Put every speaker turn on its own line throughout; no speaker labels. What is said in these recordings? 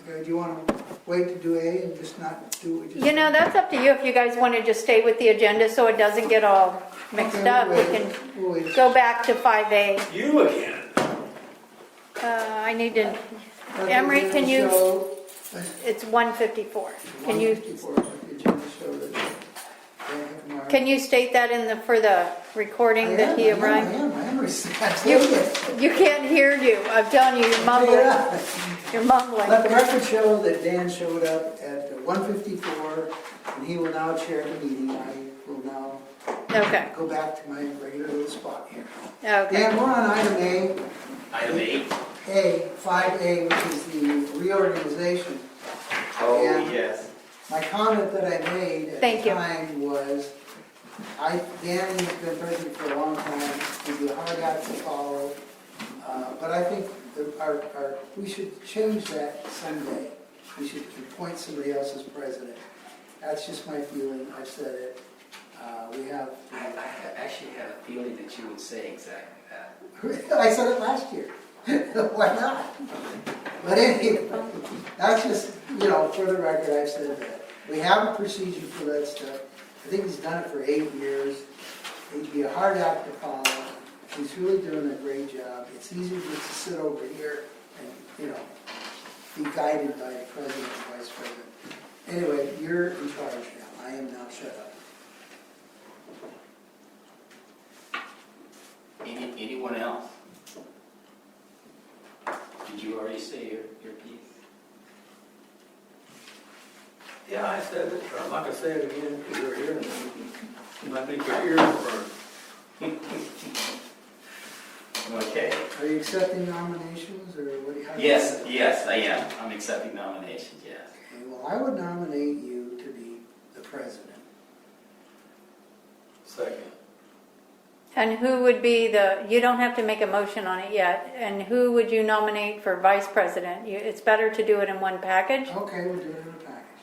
Okay, do you want to wait to do A and just not do what you just?
You know, that's up to you, if you guys want to just stay with the agenda so it doesn't get all mixed
Okay,
up, we
we'll
can
wait. We'll wait.
go back to 5A.
You again.
Uh, I need to,
Let the
Emery, can
agenda
you-
show- let
it's 154.
the
Can you,
154 let the agenda show that they have marked-
can you state that in the, for the recording
I am,
that he
I am, I
arrived?
am, I am, received.
You, you can't hear you, I'm telling you, you're mumbling,
Yeah.
you're mumbling.
Let the record show that Dan showed up at 1:54, and he will now chair the meeting. I will now
Okay,
go back to my regular little spot here.
okay.
Dan, we're on item A,
Item eight.
A, 5A, which is the reorganization.
Oh,
Yeah.
yes.
My comment that I made at
Thank
the
you.
time was, I, Dan has been president for a long time, he's a hard act to follow, uh, but I think that our, our, we should change that someday. We should appoint somebody else as president. That's just my feeling, I've said it. Uh, We have,
I, I ha- actually have a feeling that you would say uh, exactly that.
I said it last year, why not? But anyway, that's just, you know, for the record, I've said that. We have a procedure for that stuff. I think he's done it for eight years. It'd be a hard act to follow. He's really doing a great job. It's easier just to sit over here and, you know, be guided by the president and vice president. Anyway, you're in charge now. I am now shut up.
Any, anyone else? Did you already say your, your piece?
Yeah, I said it, but I'm not gonna say it again, because you're hearing it. And I think your ears burn.
Okay.
Are you accepting nominations or what do you? how do you-
Yes, yes, I am. I'm accepting nominations, yes.
Okay, Well, I would nominate you to be the president.
Second.
And who would be the, you don't have to make a motion on it yet, and who would you nominate for vice president? You- It's better to do it in one package.
Okay, we'll do it in a package.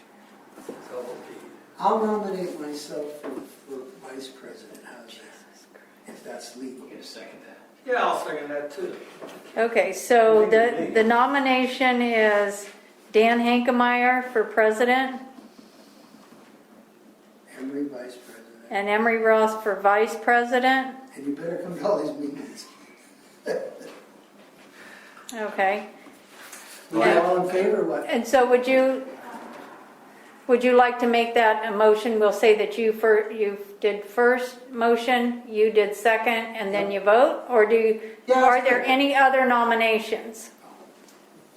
So, okay.
I'll nominate myself for, for vice president, how's that? If that's legal.
We're gonna second that.
Yeah, I'll second that too.
Okay, so the, the nomination is Dan Hankemeyer for president
Emery vice president.
and Emery Ross for vice president.
And you better come to all these meetings.
Okay,
Are you all in favor or what?
and so would you, would you like to make that a motion? We'll say that you fir, you did first motion, you did second, and then you vote? Or do, you-
Yeah,
are
that's
there
good.
any other nominations?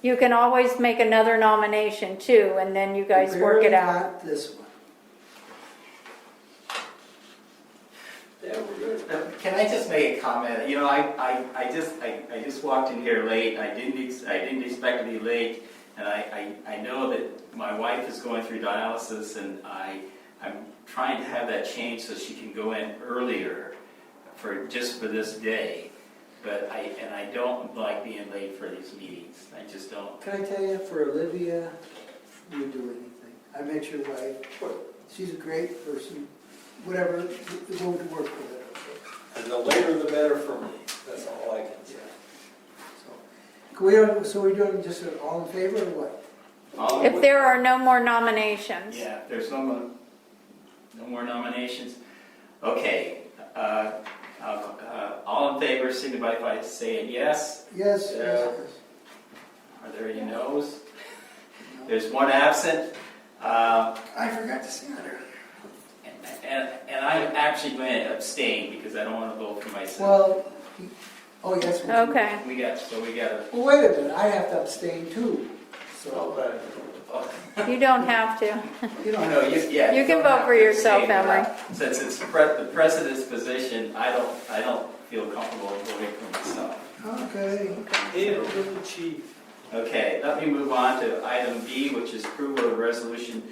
You can always make another nomination too, and then you guys work it
Barely
out.
got this one.
Yeah, we're good.
Now, Can I just make a comment? You know, I, I, I just, I, I just walked in here late, and I didn't, ex- I didn't expect to be late, and I, I, I know that my wife is going through dialysis, and I, I'm trying to have that changed so she can go in earlier for, just for this day, but I, and I don't like being late for these meetings, I just don't.
Can I tell you, for Olivia, you do anything. I met your wife. She's a great person, whatever, it won't work with it, okay?
And the later the better for me, that's all I can say.
So, can we, don't- so we're doing just an all in favor or what?
All
If there are no more nominations.
Yeah, if there's no more, no more nominations. Okay, uh, I'll- uh, all in favor, signify by saying yes.
Yes, yes,
Yeah.
Are there any noes?
yes. No.
There's one absent. Uh,
I forgot to say that earlier.
And, and and I'm actually going to abstain because I don't want to vote for myself.
Well, he- oh, yes. we do.
Okay,
We got, so we got a,
Well, wait a minute, I have to abstain too,
So,
so,
but
oh,
you don't have to.
you don't
no,
have,
you, yeah.
You can
don't
vote
have
for
to
yourself,
abstain, but
Emery.
Since it's pre- the president's position, I don't, I don't feel comfortable voting for myself.
okay.
it'll be the chief.
Okay, let me move on to item B, which is approval of resolution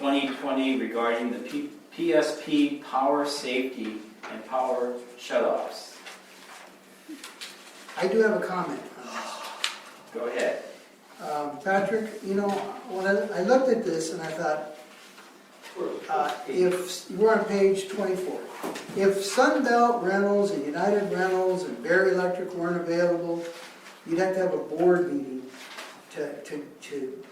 2020 regarding the P- PSP power safety and power shutoffs.
I do have a comment on this.
Go ahead.
Um, Patrick, you know, when I I looked at this and I thought, Uh, If, we're on page 24. If Sunbelt Rentals and United Rentals and Bear Electric weren't available, you'd have to have a board meeting to, to, to